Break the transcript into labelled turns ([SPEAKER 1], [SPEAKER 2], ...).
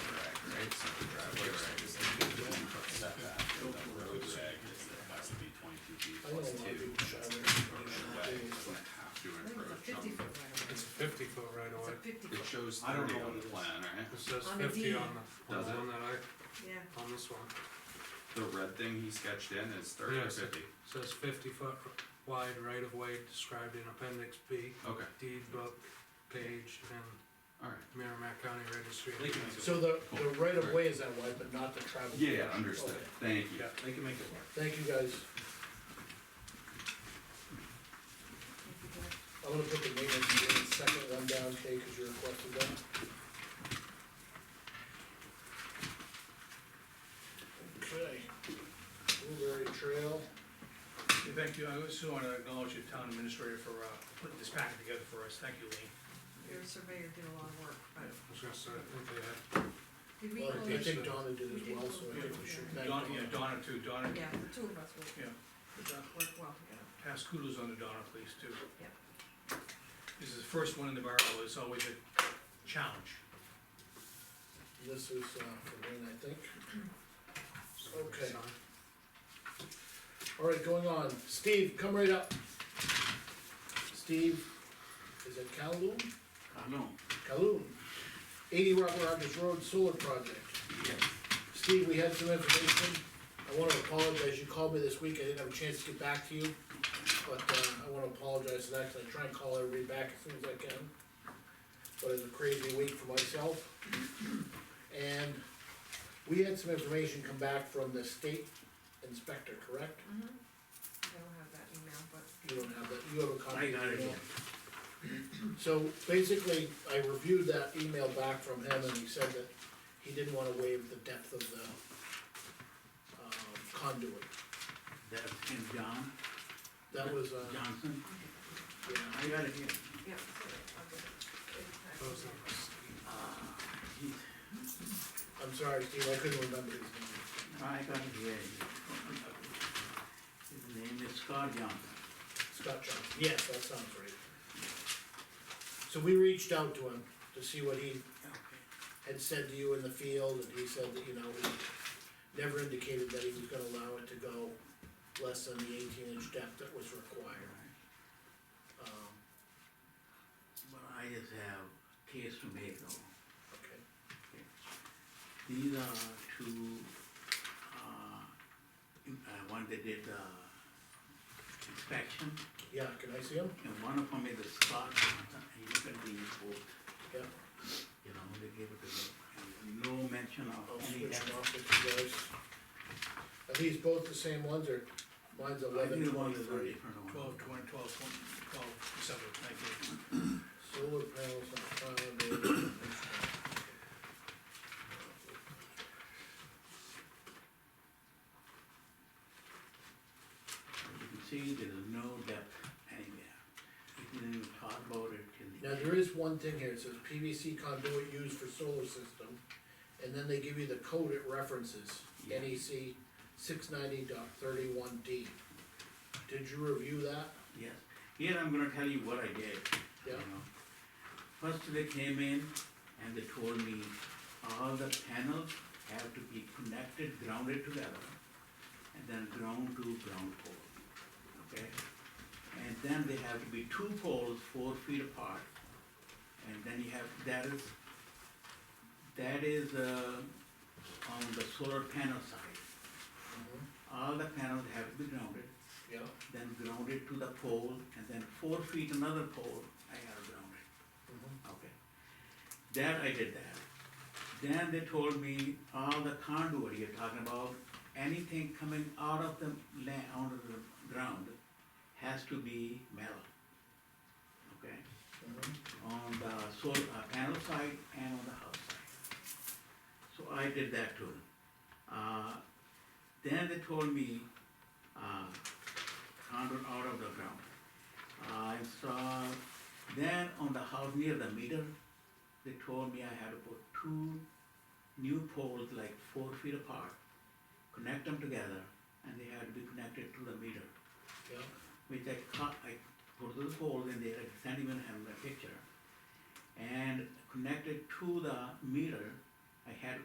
[SPEAKER 1] was
[SPEAKER 2] I don't
[SPEAKER 1] thirty
[SPEAKER 2] know
[SPEAKER 1] on
[SPEAKER 2] what
[SPEAKER 1] the
[SPEAKER 2] it is.
[SPEAKER 1] plan, right?
[SPEAKER 3] It says
[SPEAKER 4] On the
[SPEAKER 3] fifty
[SPEAKER 4] deed.
[SPEAKER 3] on the, on
[SPEAKER 2] Does
[SPEAKER 3] the
[SPEAKER 2] it?
[SPEAKER 3] one that
[SPEAKER 4] yeah.
[SPEAKER 3] I, on this one.
[SPEAKER 1] The red thing he sketched in is thirty or
[SPEAKER 3] Yes.
[SPEAKER 1] fifty,
[SPEAKER 3] Says fifty foot wide right of way described in appendix B,
[SPEAKER 1] okay,
[SPEAKER 3] deed book, page, and
[SPEAKER 1] alright.
[SPEAKER 3] Merrimack County Registry.
[SPEAKER 2] They can make it,
[SPEAKER 5] So the, the right of way is that wide, but not the travel.
[SPEAKER 1] Yeah, understood,
[SPEAKER 5] Okay.
[SPEAKER 1] thank you.
[SPEAKER 2] yeah, they can make it work.
[SPEAKER 5] Thank you, guys.
[SPEAKER 4] Thank you, Glenn.
[SPEAKER 5] I'm gonna put the maintenance agreement second one down, okay, cause you requested that. Okay, Blueberry Trail,
[SPEAKER 6] Yeah, Thank you, I also wanna acknowledge the town administrator for, uh, putting this packet together for us, thank you, Lean.
[SPEAKER 4] Your surveyor did a lot of work, but
[SPEAKER 3] I was gonna say, I think they had
[SPEAKER 4] did we
[SPEAKER 5] well,
[SPEAKER 4] close?
[SPEAKER 5] I think Donna did as well, so I think we should thank
[SPEAKER 6] Donna, yeah,
[SPEAKER 5] Donna.
[SPEAKER 6] Donna too, Donna,
[SPEAKER 4] Yeah, the two of us will
[SPEAKER 6] yeah,
[SPEAKER 4] work well together.
[SPEAKER 6] pass kudos on to Donna, please, too.
[SPEAKER 4] Yeah.
[SPEAKER 6] This is the first one in the barrel, it's always a challenge.
[SPEAKER 5] This is, uh, for Lean, I think.
[SPEAKER 3] something
[SPEAKER 5] Okay.
[SPEAKER 3] signed.
[SPEAKER 5] Alright, going on, Steve, come right up. Steve, is it Kowloon?
[SPEAKER 2] I know.
[SPEAKER 5] Kowloon, eighty Rock Rogers Road Solar Project.
[SPEAKER 2] Yes.
[SPEAKER 5] Steve, we had some information, I wanna apologize, you called me this week, I didn't have a chance to get back to you, but, uh, I wanna apologize for that, 'cause I try and call everybody back as soon as I can. But it's a crazy week for myself, and we had some information come back from the state inspector, correct?
[SPEAKER 4] Mhm. I don't have that email, but
[SPEAKER 5] You don't have that, you have a copy?
[SPEAKER 6] I got it.
[SPEAKER 5] So basically, I reviewed that email back from him and he said that he didn't wanna waive the depth of the um, conduit.
[SPEAKER 7] That's Ken John
[SPEAKER 5] That was, uh,
[SPEAKER 7] Johnson.
[SPEAKER 5] yeah,
[SPEAKER 7] I got it here.
[SPEAKER 4] yeah, so I'll get it.
[SPEAKER 3] Those numbers.
[SPEAKER 7] Uh, he's,
[SPEAKER 5] I'm sorry, Steve, I couldn't remember his name.
[SPEAKER 7] I got it here. His name is Scott Johnson.
[SPEAKER 5] Scott Johnson, yes, that sounds right. So we reached out to him to see what he had said to you in the field, and he said that, you know, he never indicated that he was gonna allow it to go less than the eighteen inch depth that was required. Um,
[SPEAKER 7] But I just have case to make though.
[SPEAKER 5] okay,
[SPEAKER 7] These are two, uh, in- uh, one that did, uh, inspection,
[SPEAKER 5] yeah, can I see him?
[SPEAKER 7] and one of them is a Scott Johnson, and you can be both,
[SPEAKER 5] Yeah,
[SPEAKER 7] you know, they gave it to me. And No mention
[SPEAKER 5] I'll
[SPEAKER 7] of any,
[SPEAKER 5] Oh, switch
[SPEAKER 7] of-
[SPEAKER 5] him off with you guys. Are these both the same ones, or mine's
[SPEAKER 7] I
[SPEAKER 5] eleven
[SPEAKER 7] think the one is a
[SPEAKER 5] twenty-three?
[SPEAKER 7] different one.
[SPEAKER 6] Twelve, twenty, twelve, twenty, twelve, December, thank you.
[SPEAKER 5] Solar panels on foundation.
[SPEAKER 7] You can see there is no depth anywhere. You can even talk about it till the.
[SPEAKER 5] Now, there is one thing here, it says PVC conduit used for solar system, and then they give you the code it references,
[SPEAKER 7] Yeah.
[SPEAKER 5] NEC six ninety D. Did you review that?
[SPEAKER 7] Yes, here I'm gonna tell you what I did. you
[SPEAKER 5] Yeah.
[SPEAKER 7] know. First, they came in and they told me all the panels have to be connected, grounded together, and then ground to ground pole, okay? And then they have to be two poles four feet apart, and then you have, that is, that is, uh, on the solar panel side. All the panels have to be grounded,
[SPEAKER 5] Yeah,
[SPEAKER 7] then ground it to the pole, and then four feet another pole, I gotta ground
[SPEAKER 5] Mm-hmm,
[SPEAKER 7] it. Okay. That I did that. Then they told me all the conduit you're talking about, anything coming out of the land, out of the ground, has to be metal. Okay?
[SPEAKER 5] mm-hmm,
[SPEAKER 7] On the solar, uh, panel side and on the house side. So I did that too. Uh, then they told me, uh, conduit out of the ground. I saw, then on the house near the meter, they told me I had to put two new poles like four feet apart, connect them together, and they had to be connected to the meter,
[SPEAKER 5] yeah,
[SPEAKER 7] which I cut, I put those poles in there, I can't even have a picture. And connected to the meter, I had